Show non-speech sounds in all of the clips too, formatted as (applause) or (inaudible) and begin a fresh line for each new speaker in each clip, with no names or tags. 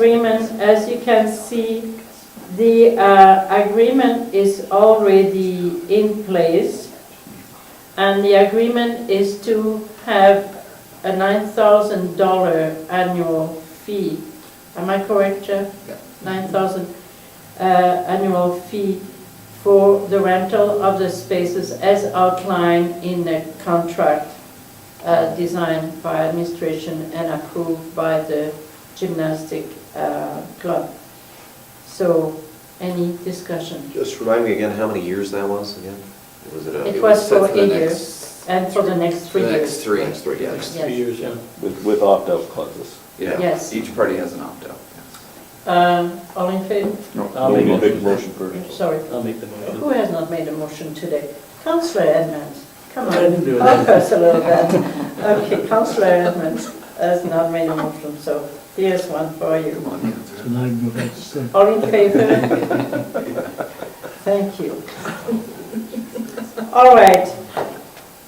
agreement, as you can see, the uh, agreement is already in place, and the agreement is to have a $9,000 annual fee. Am I correct, Jeff?
Yeah.
9,000 uh, annual fee for the rental of the spaces as outlined in the contract uh, designed by administration and approved by the gymnastic uh, club. So, any discussion?
Just remind me again how many years that was again? Was it
It
a,
was
set
for
the
eight
next-
years, and for the next
For
three
the next
years.
three.
Next three, yeah.
Yes.
Yes.
Two years, yeah.
With, with opt-out clauses.
Yes.
Each party has an opt-out.
Uh, All in favor?
I'll
Make a
make
big
the
motion
motion.
first.
Sorry.
I'll make the motion.
Who has not made a motion today? Councillor Edmonds, come on.
I didn't do it.
Help us a little bit. Okay, Councillor Edmonds has not made a motion, so here's one for you.
Come on,
So
yeah.
now you go back to sleep.
All in favor? Thank you. All right.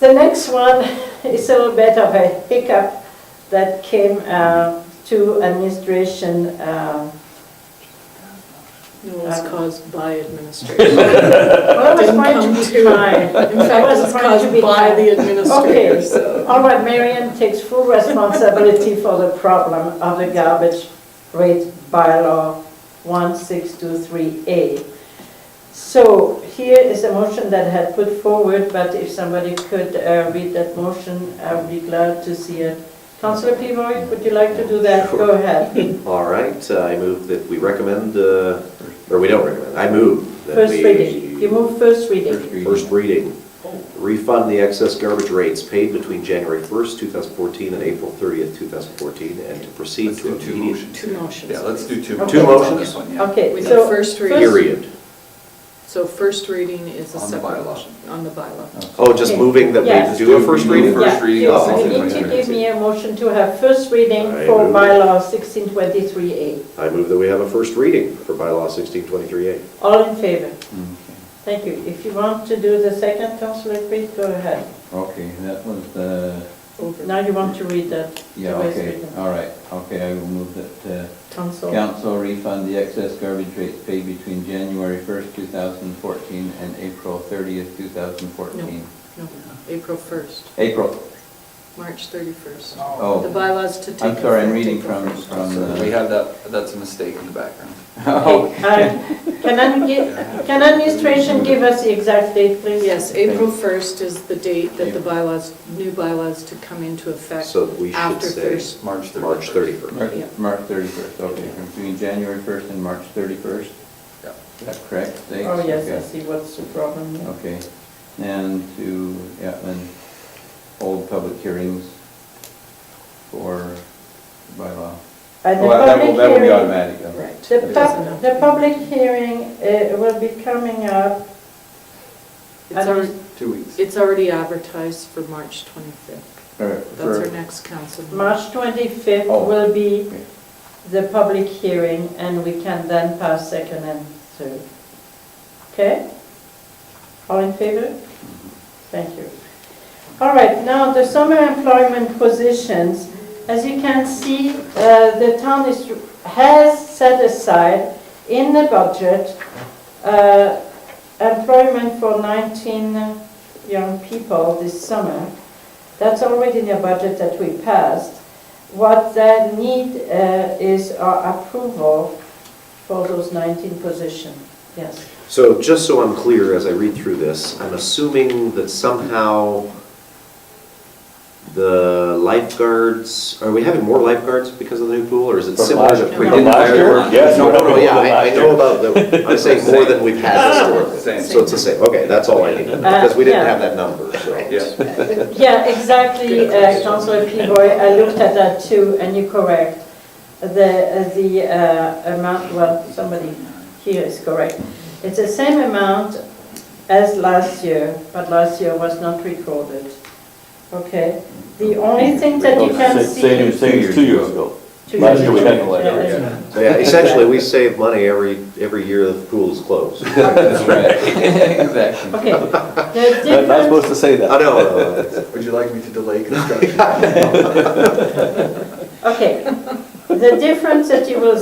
The next one is a little bit of a hiccup that came uh, to administration uh,
No, it's
Um,
caused by administration.
Well, I was
Didn't
trying
come
to be
to-
kind.
In fact,
was
it's
trying to be
caused by
kind.
the administrator, so.
All right, Marianne takes full responsibility for the problem of the garbage rate bylaw 1623A. So here is a motion that I had put forward, but if somebody could uh, read that motion, I would be glad to see it. Councillor Pivoy, would you like to do that? Go ahead.
All right, uh, I move that we recommend, uh, or we don't recommend, I move that
First
we.
reading. You move first reading.
First reading. Refund the excess garbage rates paid between January 1st, 2014 and April 30th, 2014, and to proceed
Let's
to
do two
immediate.
motions.
Two motions.
Yeah, let's do two.
Okay.
motions on
motions?
This one, yeah.
Okay,
With the
so.
first reading.
Period.
So first reading is a
On the
separate.
bylaw.
On the bylaw.
Oh, just
Okay.
moving that
Yes.
we do a first Oh,
Do
reading?
first
Yeah,
reading
you-
of
You need to
1623.
give me a motion to have first reading
I
for
move.
bylaw 1623A.
I move that we have a first reading for bylaw 1623A.
All in favor?
Mm-hmm.
Thank you. If you want to do the second, Councillor Creed, go ahead.
Okay, that was the,
Over.
Now you want to read that. the
yeah,
way it's
okay, Uh,
written.
all right, okay, I will move that uh,
Council.
council refund the excess garbage rates paid between January 1st, 2014 and April 30th, 2014.
No, April 1st,
April,
March 31st. The
oh,
bylaws to take.
I'm sorry, I'm
effect
reading
April
from,
1st.
from
So We
the,
had that, that's a mistake in the background.
(laughs) oh, (laughs)
Okay, uh, Can admi- can administration give us the exact date, please?
Yes, April 1st is the date that the bylaws, new bylaws to come into effect.
So we should
After
say
first.
March 31st.
March 31st.
March March 31st, okay, from between January 1st and March 31st,
Yeah.
is that correct? Dates?
Oh, yes, I
Okay.
see what's the problem. yeah.
Okay, and to, yeah, and hold public hearings for bylaw.
And the
Oh, Well, that
public
will, that will be
hearing-
automatic, though.
Right.
The
It doesn't
pub, the public hearing uh, will be coming up.
It's already,
Two weeks.
it's already advertised for March 25th.
For-
That's our
for-
next council. meeting.
March 25th
Oh.
will be
Okay.
the public hearing, and we can then pass second and third. Okay? All in favor? Thank you. All right, now the summer employment positions. As you can see, uh, the town is, has set aside in the budget uh, employment for 19 young people this summer. That's already in the budget that we passed. What they need uh, is our approval for those 19 positions. Yes.
So just so I'm clear, as I read through this, I'm assuming that somehow the lifeguards, are we having more lifeguards because of the new pool, or is it
From
similar to
last-
pre?
from last year? Yes,
No,
we
no,
have
no, yeah,
more than
I I
last
know
year.
about the,
(laughs)
I'm saying more than we've had historically.
Same.
So it's the same, okay, that's all I need, because we didn't have that number, so.
Yeah.
Yeah, exactly, uh, Councillor Pivoy, I looked at that too, and you're correct. The, the uh, amount, well, somebody here is correct. It's the same amount as last year, but last year was not recorded. Okay? The only thing that you can see.
Same, same, Oh, two years ago. Last year we had the
Yeah,
letter.
that's
Yeah.
right.
So yeah, essentially, we save money every, every year the pool is
(laughs)
closed. I
That's right. Exactly.
Okay. The
Not not
difference,
supposed to say (laughs) that.
know, uh,
Would you like me to delay
(laughs)
construction?
okay. The difference that you will